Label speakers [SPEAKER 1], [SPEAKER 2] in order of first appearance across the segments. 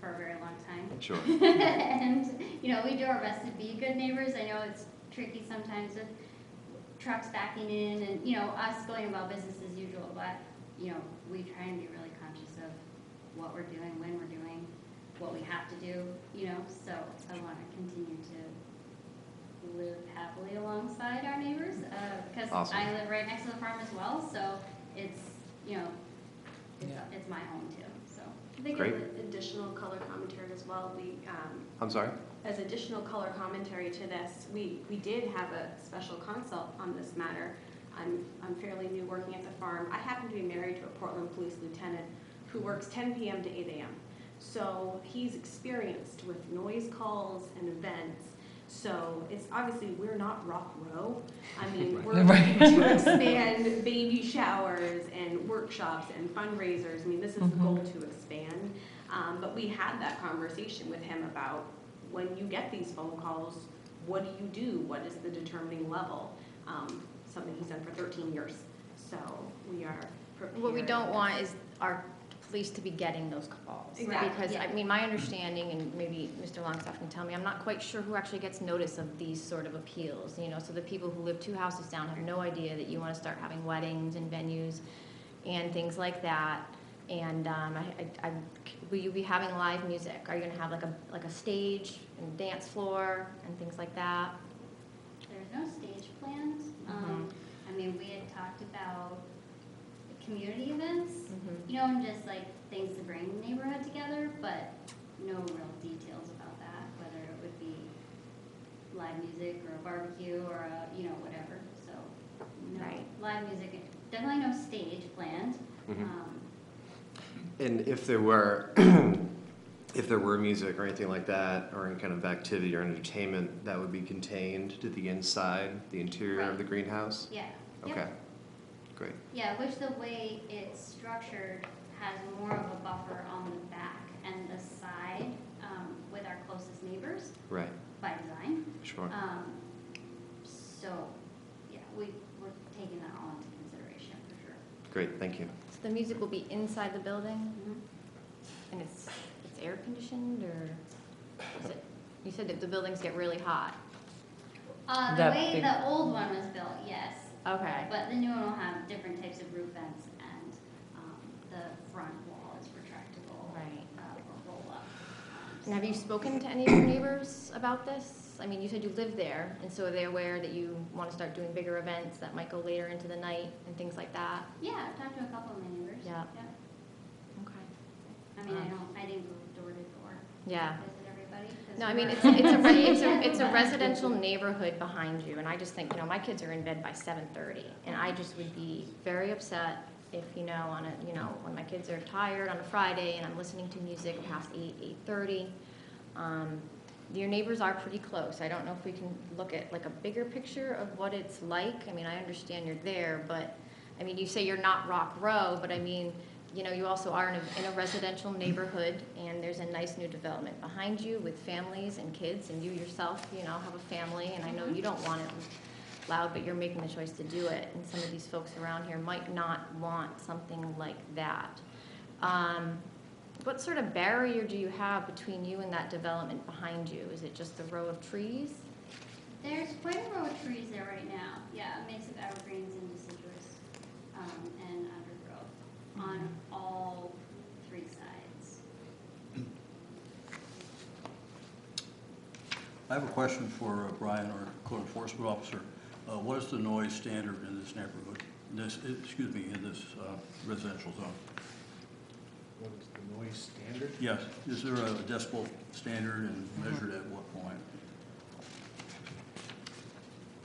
[SPEAKER 1] for a very long time.
[SPEAKER 2] Sure.
[SPEAKER 1] And, you know, we do our best to be good neighbors. I know it's tricky sometimes with trucks backing in and, you know, us going about business as usual, but, you know, we try and be really conscious of what we're doing, when we're doing, what we have to do, you know, so I want to continue to live happily alongside our neighbors, because
[SPEAKER 2] Awesome.
[SPEAKER 1] I live right next to the farm as well, so it's, you know, it's,
[SPEAKER 3] Yeah.
[SPEAKER 1] it's my home too, so.
[SPEAKER 4] I think
[SPEAKER 2] Great.
[SPEAKER 4] as additional color commentary as well, we, um,
[SPEAKER 2] I'm sorry?
[SPEAKER 4] as additional color commentary to this, we, we did have a special consult on this matter. I'm, I'm fairly new working at the farm. I happen to be married to a Portland police lieutenant who works 10 p.m. to 8 a.m. So he's experienced with noise calls and events. So it's obviously, we're not Rock Row. I mean, we're
[SPEAKER 3] Right.
[SPEAKER 4] looking to expand baby showers and workshops and fundraisers. I mean, this is the
[SPEAKER 3] Mhm.
[SPEAKER 4] goal to expand. Um, but we had that conversation with him about when you get these phone calls, what do you do? What is the determining level? Um, something he's done for 13 years. So we are prepared.
[SPEAKER 5] What we don't want is our police to be getting those calls.
[SPEAKER 4] Exactly.
[SPEAKER 5] Because, I
[SPEAKER 1] Yeah.
[SPEAKER 5] mean, my understanding, and maybe Mr. Longstaff can tell me, I'm not quite sure who actually gets notice of these sort of appeals, you know, so the people who live two houses down have no idea that you want to start having weddings and venues and things like that. And, um, I, I, I- will you be having live music? Are you gonna have like a, like a stage and dance floor and things like that?
[SPEAKER 1] There's no stage plans. Um, I mean, we had talked about community events,
[SPEAKER 5] Mhm.
[SPEAKER 1] you know, and just like things to bring the neighborhood together, but no real details about that, whether it would be live music or a barbecue or a, you know, whatever, so. no
[SPEAKER 5] Right.
[SPEAKER 1] Live music, definitely no stage planned.
[SPEAKER 2] Mhm.
[SPEAKER 1] Um,
[SPEAKER 2] And if there were, if there were music or anything like that, or any kind of activity or entertainment, that would be contained to the inside, the interior of the greenhouse?
[SPEAKER 1] Yeah. Yep.
[SPEAKER 2] Okay, great.
[SPEAKER 1] Yeah, which the way it's structured has more of a buffer on the back and the side um, with our closest neighbors
[SPEAKER 2] Right,
[SPEAKER 1] by design.
[SPEAKER 2] sure.
[SPEAKER 1] Um, So, yeah, we, we're taking that all into consideration for sure.
[SPEAKER 2] Great, thank you.
[SPEAKER 5] So the music will be inside the building?
[SPEAKER 1] Mhm.
[SPEAKER 5] And it's, it's air conditioned or is it, you said that the buildings get really hot.
[SPEAKER 1] Uh, The
[SPEAKER 3] That
[SPEAKER 1] way
[SPEAKER 3] big-
[SPEAKER 1] the old one was built, yes,
[SPEAKER 5] Okay.
[SPEAKER 1] but the new one will have different types of roof vents and um, the front wall is retractable.
[SPEAKER 5] Right.
[SPEAKER 1] uh, Or roll up. Um,
[SPEAKER 5] And have you
[SPEAKER 1] so-
[SPEAKER 5] spoken to any of your neighbors about this? I mean, you said you live there and so are they aware that you want to start doing bigger events that might go later into the night and things like that?
[SPEAKER 1] Yeah, I've talked to a couple of my neighbors.
[SPEAKER 5] Yeah.
[SPEAKER 1] Yep.
[SPEAKER 5] Okay.
[SPEAKER 1] I mean, I
[SPEAKER 5] Um,
[SPEAKER 1] don't, I didn't go door to door.
[SPEAKER 5] Yeah.
[SPEAKER 1] to Visit everybody. 'cause
[SPEAKER 5] No, I
[SPEAKER 1] we
[SPEAKER 5] mean,
[SPEAKER 1] were-
[SPEAKER 5] it's, it's a, re- it's a, it's a residential neighborhood behind you, and I just think, you know, my kids are in bed by seven thirty, and I just would be very upset if, you know, on a, you know, when my kids are tired on a Friday and I'm listening to music past eight, eight-thirty. Um, your neighbors are pretty close, I don't know if we can look at like a bigger picture of what it's like, I mean, I understand you're there, but, I mean, you say you're not Rock Row, but I mean, you know, you also are in a, in a residential neighborhood, and there's a nice new development behind you with families and kids, and you yourself, you know, have a family, and I know you don't want it loud, but you're making the choice to do it, and some of these folks around here might not want something like that. Um, what sort of barrier do you have between you and that development behind you? Is it just the row of trees?
[SPEAKER 1] There's quite a row of trees there right now, yeah, a mix of evergreens and deciduous, um, and undergrowth on
[SPEAKER 5] Mm-hmm.
[SPEAKER 1] all three sides.
[SPEAKER 6] I have a question for uh, Brian, our code enforcement officer. Uh, What is the noise standard in this neighborhood, this, excuse me, in this uh, residential zone?
[SPEAKER 7] What is the noise standard?
[SPEAKER 6] Yes, is there a decibel standard and measured at what point?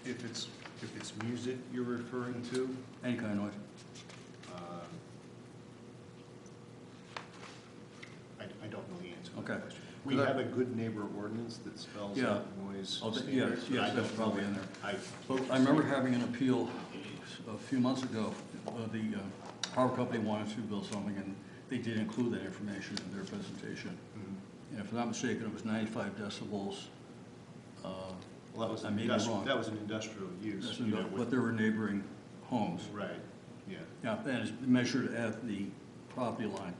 [SPEAKER 7] If it's, if it's music you're referring to,
[SPEAKER 6] Any kind of noise?
[SPEAKER 7] um, I, I don't know the answer to
[SPEAKER 6] Okay.
[SPEAKER 7] that question. We
[SPEAKER 6] Could I-
[SPEAKER 7] have a good neighbor ordinance that spells
[SPEAKER 6] Yeah.
[SPEAKER 7] out noise
[SPEAKER 6] Oh, th-
[SPEAKER 7] standards.
[SPEAKER 6] yes,
[SPEAKER 7] but
[SPEAKER 6] yes,
[SPEAKER 7] I
[SPEAKER 6] that's
[SPEAKER 7] don't know
[SPEAKER 6] probably
[SPEAKER 7] it.
[SPEAKER 6] in there.
[SPEAKER 7] I.
[SPEAKER 6] But I remember having an appeal a few months ago. Uh, The uh, power company wanted to build something, and they did include that information in their presentation.
[SPEAKER 7] Mm-hmm.
[SPEAKER 6] And if I'm not mistaken, it was 95 decibels. uh,
[SPEAKER 7] Well, that was,
[SPEAKER 6] I
[SPEAKER 7] an
[SPEAKER 6] may be
[SPEAKER 7] industri-
[SPEAKER 6] wrong.
[SPEAKER 7] that was an industrial use,
[SPEAKER 6] That's
[SPEAKER 7] you know,
[SPEAKER 6] enough, But
[SPEAKER 7] with,
[SPEAKER 6] there were neighboring homes.
[SPEAKER 7] right, yeah.
[SPEAKER 6] Yeah, that is measured at the property line.